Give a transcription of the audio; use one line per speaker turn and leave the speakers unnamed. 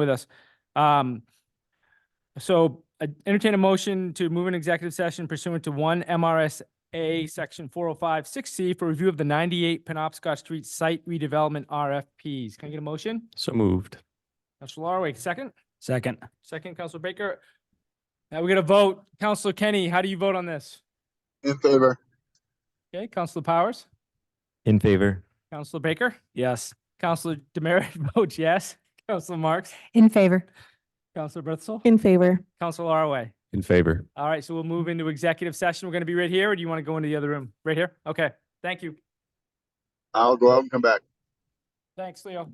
with us. Um, so uh, entertain a motion to move an executive session pursuant to one MRSA Section four oh five six C for review of the ninety-eight Penobscot Street Site redevelopment RFPs. Can I get a motion?
So moved.
Counselor Larway, second?
Second.
Second, Counselor Baker. Now we're gonna vote. Counselor Kenny, how do you vote on this?
In favor.
Okay, Counselor Powers,
In favor?
Counselor Baker,
Yes.
Counselor Demerit votes yes, Counselor Marks,
In favor.
Counselor Berthel,
In favor.
Counselor Larway.
In favor.
All right, so we'll move into executive session. We're going to be right here, or do you want to go into the other room? Right here? Okay, thank you.
I'll go out and come back.
Thanks, Leo.